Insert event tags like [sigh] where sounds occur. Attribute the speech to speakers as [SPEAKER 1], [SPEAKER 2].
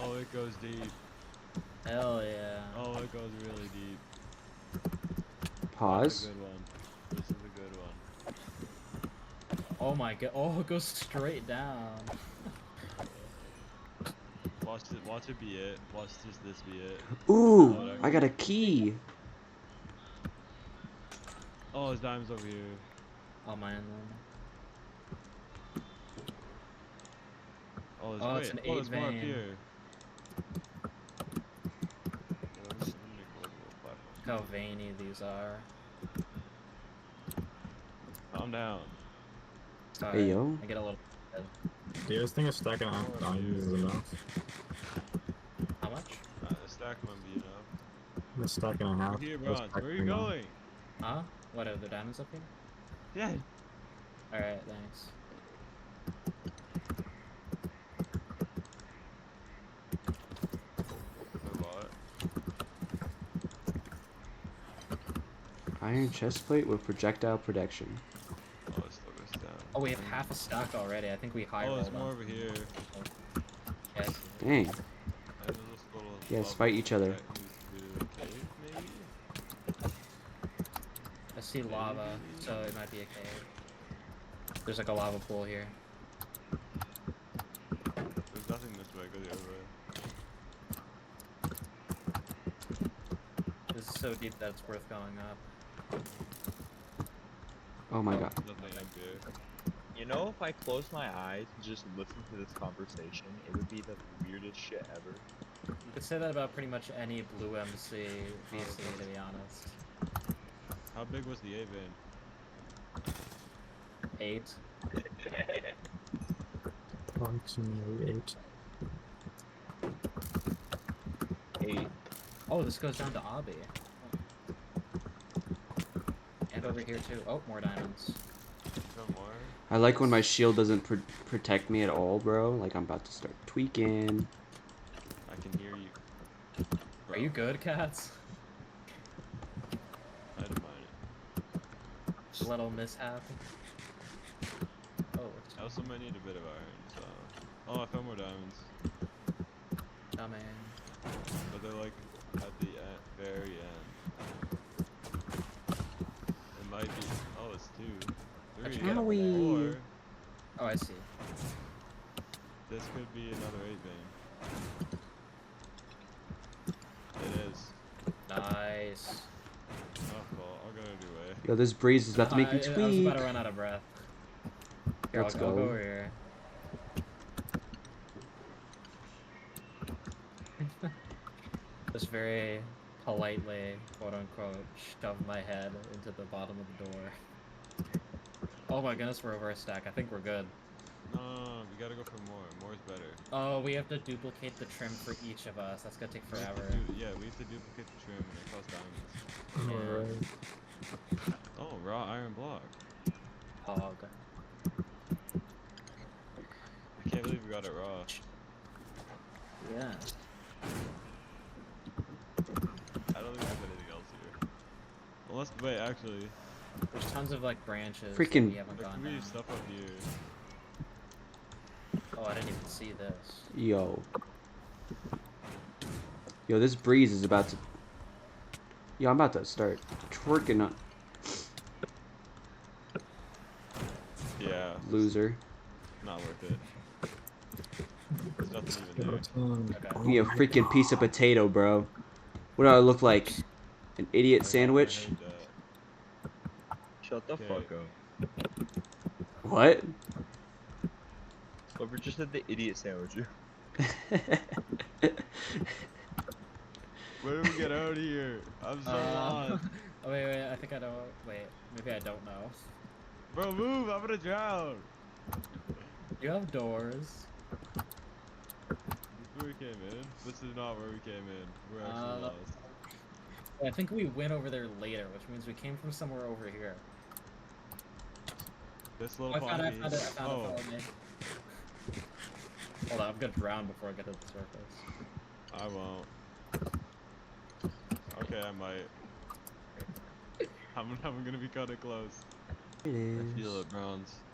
[SPEAKER 1] Oh, it goes deep.
[SPEAKER 2] Hell yeah.
[SPEAKER 1] Oh, it goes really deep. This
[SPEAKER 3] Pause.
[SPEAKER 1] is a good one. This is a good one.
[SPEAKER 2] Oh my god. Oh, it goes straight down.
[SPEAKER 1] Watch it. Watch it be it. Watch this. This be
[SPEAKER 3] [laughs]
[SPEAKER 1] it.
[SPEAKER 3] Ooh, I got a key.
[SPEAKER 1] Oh, his dime's over here.
[SPEAKER 2] Oh man.
[SPEAKER 1] Oh, there's,
[SPEAKER 2] Oh,
[SPEAKER 1] wait,
[SPEAKER 2] it's an
[SPEAKER 1] oh, there's
[SPEAKER 2] eight
[SPEAKER 1] more up
[SPEAKER 2] vein.
[SPEAKER 1] here. Yeah, let me- let me record a little platform.
[SPEAKER 2] Look how veiny these are.
[SPEAKER 1] Calm down.
[SPEAKER 2] Sorry.
[SPEAKER 3] Hey yo.
[SPEAKER 2] I get a little.
[SPEAKER 4] Yeah, this thing is stacking on values enough.
[SPEAKER 2] How much?
[SPEAKER 1] Uh, the stack might be enough.
[SPEAKER 4] It's stacking on
[SPEAKER 1] Over
[SPEAKER 4] half.
[SPEAKER 1] here,
[SPEAKER 4] it's
[SPEAKER 1] Bronze. Where are you
[SPEAKER 4] stacking on-
[SPEAKER 1] going?
[SPEAKER 2] Huh? What are the diamonds up here?
[SPEAKER 1] Yeah.
[SPEAKER 2] Alright, thanks.
[SPEAKER 1] Robot.
[SPEAKER 3] Iron chestplate with projectile protection.
[SPEAKER 1] Oh, it still goes down.
[SPEAKER 2] Oh, we have half a stock already. I think we high
[SPEAKER 1] Oh,
[SPEAKER 2] rolled
[SPEAKER 1] there's
[SPEAKER 2] on
[SPEAKER 1] more over here. And
[SPEAKER 2] Yes.
[SPEAKER 3] Dang.
[SPEAKER 1] there's this little
[SPEAKER 3] Yes,
[SPEAKER 1] bubble
[SPEAKER 3] fight each other.
[SPEAKER 1] that leads to a cave, maybe?
[SPEAKER 2] I see lava, so it might be a cave. There's like a lava pool here.
[SPEAKER 1] There's nothing this way. Go the other way.
[SPEAKER 2] This is so deep that it's worth going up.
[SPEAKER 3] Oh my god.
[SPEAKER 1] There's nothing up here.
[SPEAKER 5] You know, if I closed my eyes and just listened to this conversation, it would be the weirdest shit ever.
[SPEAKER 2] You could say that about pretty much any blue MC VC, to be honest.
[SPEAKER 1] How big was the A vein?
[SPEAKER 2] Eight.
[SPEAKER 4] Continuate.
[SPEAKER 5] Hey,
[SPEAKER 2] Oh, this goes down to Abby. And over here too. Oh, more diamonds.
[SPEAKER 1] No more?
[SPEAKER 3] I like when my shield doesn't pr- protect me at all, bro. Like I'm about to start tweaking.
[SPEAKER 1] I can hear you.
[SPEAKER 2] Are you good, cats?
[SPEAKER 1] I don't mind it.
[SPEAKER 2] Little mishap. Oh,
[SPEAKER 1] I
[SPEAKER 2] it's
[SPEAKER 1] also might need a bit of iron, so. Oh, I found more diamonds.
[SPEAKER 2] coming.
[SPEAKER 1] But they're like at the end, very end. It might be. Oh, it's two. Three.
[SPEAKER 2] Actually, get up
[SPEAKER 1] Or
[SPEAKER 3] there.
[SPEAKER 2] Oh, I see.
[SPEAKER 1] this could be another eight vein. It is.
[SPEAKER 2] Nice.
[SPEAKER 1] Oh, well, I'll go either way.
[SPEAKER 3] Yo, this breeze is about to make me
[SPEAKER 2] I- I was
[SPEAKER 3] tweak.
[SPEAKER 2] about to run out of breath. Here,
[SPEAKER 3] Let's
[SPEAKER 2] I'll, go. I'll go
[SPEAKER 3] go.
[SPEAKER 2] over here. [laughs] Just very politely, quote unquote, shove my head into the bottom of the door. Oh my goodness, we're over a stack. I think we're good.
[SPEAKER 1] No, no, no, no, we gotta go for more. More is better.
[SPEAKER 2] Oh, we have to duplicate the trim for each of us. That's gonna take
[SPEAKER 1] We have to
[SPEAKER 2] forever.
[SPEAKER 1] du- yeah, we have to duplicate the trim and it costs diamonds.
[SPEAKER 4] Alright.
[SPEAKER 1] Oh, raw iron block.
[SPEAKER 2] Hog.
[SPEAKER 1] I can't believe we got it raw.
[SPEAKER 2] Yeah.
[SPEAKER 1] I don't think there's anything else here. Unless, wait, actually,
[SPEAKER 2] There's tons of like branches. That
[SPEAKER 3] Freaking-
[SPEAKER 2] we haven't
[SPEAKER 1] there
[SPEAKER 2] gone
[SPEAKER 1] could be
[SPEAKER 2] down.
[SPEAKER 1] stuff up here.
[SPEAKER 2] Oh, I didn't even see this.
[SPEAKER 3] Yo. Yo, this breeze is about to. Yo, I'm about to start twerking uh, on
[SPEAKER 1] Yeah. it's
[SPEAKER 3] loser.
[SPEAKER 1] Not worth it. There's nothing even there.
[SPEAKER 2] Okay.
[SPEAKER 3] Give me a freaking piece of potato, bro. What do I look like? An idiot
[SPEAKER 1] I
[SPEAKER 3] sandwich?
[SPEAKER 1] heard that.
[SPEAKER 5] shut the
[SPEAKER 1] Okay.
[SPEAKER 5] fuck up.
[SPEAKER 3] What?
[SPEAKER 5] But we're just at the idiot sandwich.
[SPEAKER 1] uh, Where do we get out of here? I'm so
[SPEAKER 2] Uh,
[SPEAKER 1] lost.
[SPEAKER 2] [laughs] oh, wait, wait, I think I don't. Wait, maybe I don't know.
[SPEAKER 1] Bro, move! I'm gonna drown.
[SPEAKER 2] You have doors.
[SPEAKER 1] This is where we came in. This is not where we came in. We're
[SPEAKER 2] Uh,
[SPEAKER 1] actually lost.
[SPEAKER 2] I think we went over there later, which means we came from somewhere over here.
[SPEAKER 1] This
[SPEAKER 2] Oh,
[SPEAKER 1] little
[SPEAKER 2] I found it, I
[SPEAKER 1] pocket-
[SPEAKER 2] found it, I found
[SPEAKER 1] oh,
[SPEAKER 2] it, follow me. Hold on, I'm gonna drown before I get to the surface.
[SPEAKER 1] I won't. Okay, I might. I'm, I'm gonna be kinda close.
[SPEAKER 3] It
[SPEAKER 1] I
[SPEAKER 3] is.
[SPEAKER 1] feel it, Bronze.